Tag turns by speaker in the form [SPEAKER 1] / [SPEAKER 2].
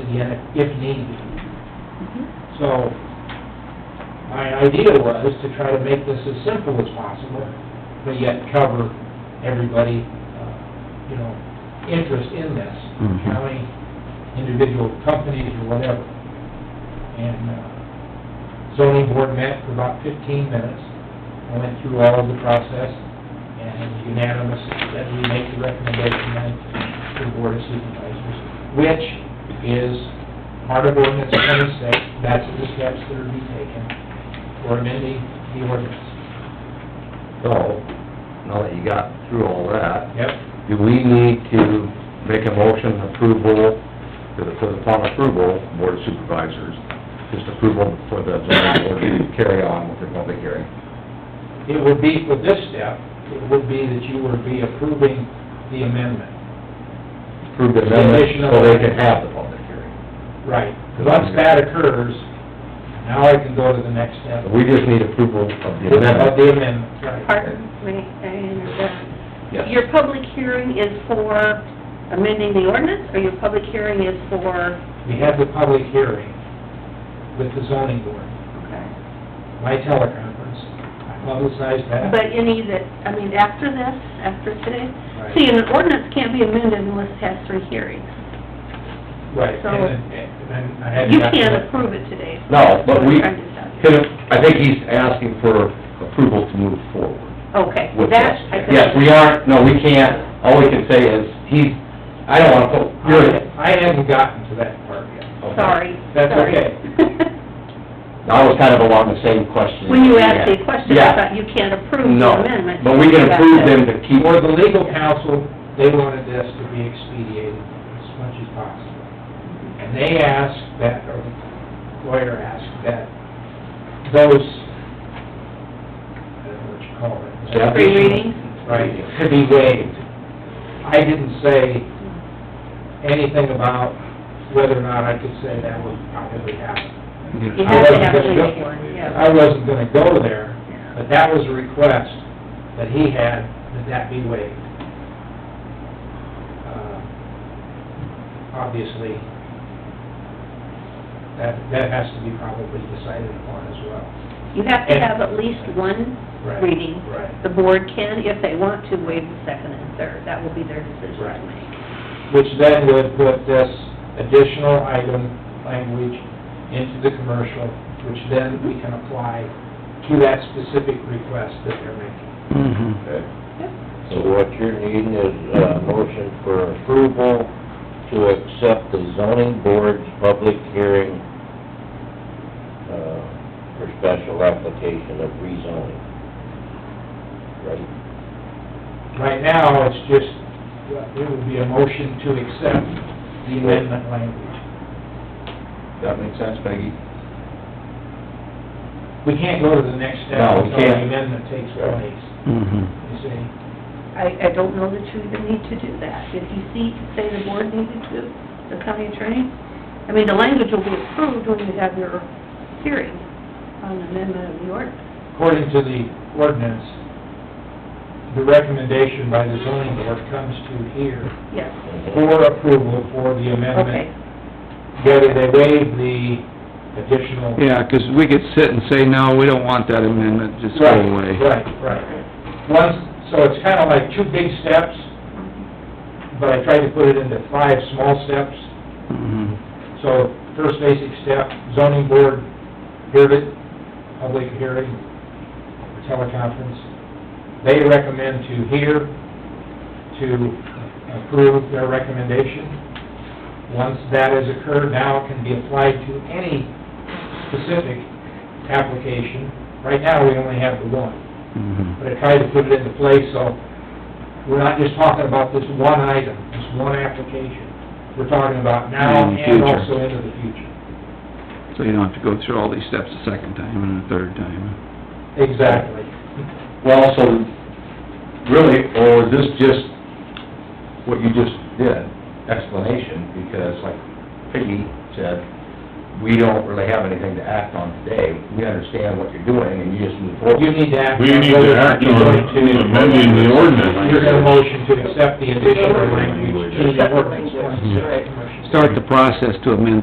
[SPEAKER 1] again if- if need be.
[SPEAKER 2] Mm-hmm.
[SPEAKER 1] So, my idea was to try to make this as simple as possible, but yet cover everybody, uh, you know, interest in this,
[SPEAKER 2] Mhm.
[SPEAKER 1] county, individual companies or whatever. And uh, zoning board met for about fifteen minutes, I went through all of the process, and it was unanimous that we make the recommendation then to the board of supervisors, which is part of ordinance twenty-six, that's the steps that are to be taken for amending the ordinance.
[SPEAKER 2] So, now that you got through all that,
[SPEAKER 1] Yep.
[SPEAKER 2] do we need to make a motion approval, for the- for the upon approval, board of supervisors, just approval for the zoning board to carry on with their public hearing?
[SPEAKER 1] It would be, for this step, it would be that you would be approving the amendment.
[SPEAKER 2] Approve the amendment so they can have the public hearing.
[SPEAKER 1] Right. Once that occurs, now I can go to the next step.
[SPEAKER 2] We just need approval of the
[SPEAKER 1] Of
[SPEAKER 2] amendment.
[SPEAKER 1] the amendment, right.
[SPEAKER 3] Pardon, may I interrupt?
[SPEAKER 2] Yes.
[SPEAKER 3] Your public hearing is for amending the ordinance, or your public hearing is for,
[SPEAKER 1] We have the public hearing with the zoning board,
[SPEAKER 3] okay.
[SPEAKER 1] my teleconference, I publicized that.
[SPEAKER 3] But any that, I mean, after this, after today?
[SPEAKER 1] Right.
[SPEAKER 3] See, an ordinance can't be amended unless it has three hearings.
[SPEAKER 1] Right,
[SPEAKER 3] So-
[SPEAKER 1] and, and- and I had.
[SPEAKER 3] You can't approve it today.
[SPEAKER 2] No, but we,
[SPEAKER 3] That's what I'm trying to tell you.
[SPEAKER 2] can- I think he's asking for approval to move forward.
[SPEAKER 3] Okay,
[SPEAKER 2] with this.
[SPEAKER 3] that's, I think.
[SPEAKER 2] Yes, we aren't, no, we can't, all we can say is, he's, I don't wanna put, you're it.
[SPEAKER 1] I hadn't gotten to that part yet.
[SPEAKER 3] Sorry.
[SPEAKER 1] That's
[SPEAKER 3] sorry.
[SPEAKER 1] okay.
[SPEAKER 2] I was kind of along the same question.
[SPEAKER 3] When you asked the question, I
[SPEAKER 2] Yeah.
[SPEAKER 3] thought you can't approve the
[SPEAKER 2] No,
[SPEAKER 3] amendment.
[SPEAKER 2] but we can approve them to keep,
[SPEAKER 1] For the legal counsel, they wanted this to be expedited as much as possible. And they asked that, or the lawyer asked that those, I don't know what you call it.
[SPEAKER 3] Three readings?
[SPEAKER 1] Right, to be waived. I didn't say anything about whether or not I could say that would probably happen.
[SPEAKER 3] You have to have
[SPEAKER 1] I wasn't
[SPEAKER 3] a
[SPEAKER 1] gonna
[SPEAKER 3] legal one,
[SPEAKER 1] go-
[SPEAKER 3] yeah.
[SPEAKER 1] I wasn't gonna go there,
[SPEAKER 3] Yeah.
[SPEAKER 1] but that was a request that he had, that that be waived. Uh, Obviously, that, that has to be probably decided upon as well.
[SPEAKER 3] You have to have at least one
[SPEAKER 1] Right,
[SPEAKER 3] reading.
[SPEAKER 1] right.
[SPEAKER 3] The board can, if they want to, waive the second and third. That will be their decision
[SPEAKER 1] Right.
[SPEAKER 3] to make.
[SPEAKER 1] Which then would put this additional item language into the commercial, which then we can apply to that specific request that they're making.
[SPEAKER 2] Mm-hmm.
[SPEAKER 4] Okay. So what you're needing is a motion for approval to accept the zoning board's public hearing, uh, for special application of rezoning. Right?
[SPEAKER 1] Right now, it's just, it would be a motion to accept the amendment language.
[SPEAKER 2] That makes sense, Peggy?
[SPEAKER 1] We can't go to the next step
[SPEAKER 2] No, we
[SPEAKER 1] until the
[SPEAKER 2] can't.
[SPEAKER 1] amendment takes place, you see?
[SPEAKER 3] I, I don't know that you even need to do that. If you see, say the board needed to, the county attorney, I mean, the language will be approved when you have your hearing on amendment of the ordinance.
[SPEAKER 1] According to the ordinance, the recommendation by the zoning board comes to here
[SPEAKER 3] Yes,
[SPEAKER 1] for approval for the
[SPEAKER 3] okay.
[SPEAKER 1] amendment, whether they waive the additional...
[SPEAKER 5] Yeah, 'cause we could sit and say, no, we don't want that amendment, just go away.
[SPEAKER 1] Right, right, right. Once, so it's kind of like two big steps, but I tried to put it into five small steps,
[SPEAKER 5] Mhm.
[SPEAKER 1] So, first basic step, zoning board, heard it, public hearing, teleconference. They recommend to hear, to approve their recommendation. Once that has occurred, now it can be applied to any specific application. Right now, we only have the one
[SPEAKER 5] Mhm.
[SPEAKER 1] but I tried to put it into place, so we're not just talking about this one item, this one application. We're talking about now
[SPEAKER 5] In the
[SPEAKER 1] and
[SPEAKER 5] future.
[SPEAKER 1] also into the future.
[SPEAKER 5] So you don't have to go through all these steps a second time and a third time.
[SPEAKER 1] Exactly.
[SPEAKER 2] Well, so, really, or is this just what you just did, explanation, because like Peggy said, we don't really have anything to act on today, we understand what you're doing, and you just move forward.
[SPEAKER 1] You need to act.
[SPEAKER 6] We need
[SPEAKER 1] whether
[SPEAKER 6] to
[SPEAKER 1] or not
[SPEAKER 6] act
[SPEAKER 1] you're
[SPEAKER 6] on
[SPEAKER 1] going to-
[SPEAKER 6] amending the
[SPEAKER 1] You're gonna
[SPEAKER 6] ordinance.
[SPEAKER 1] motion to accept the additional language to the ordinance.
[SPEAKER 5] Start the process to amend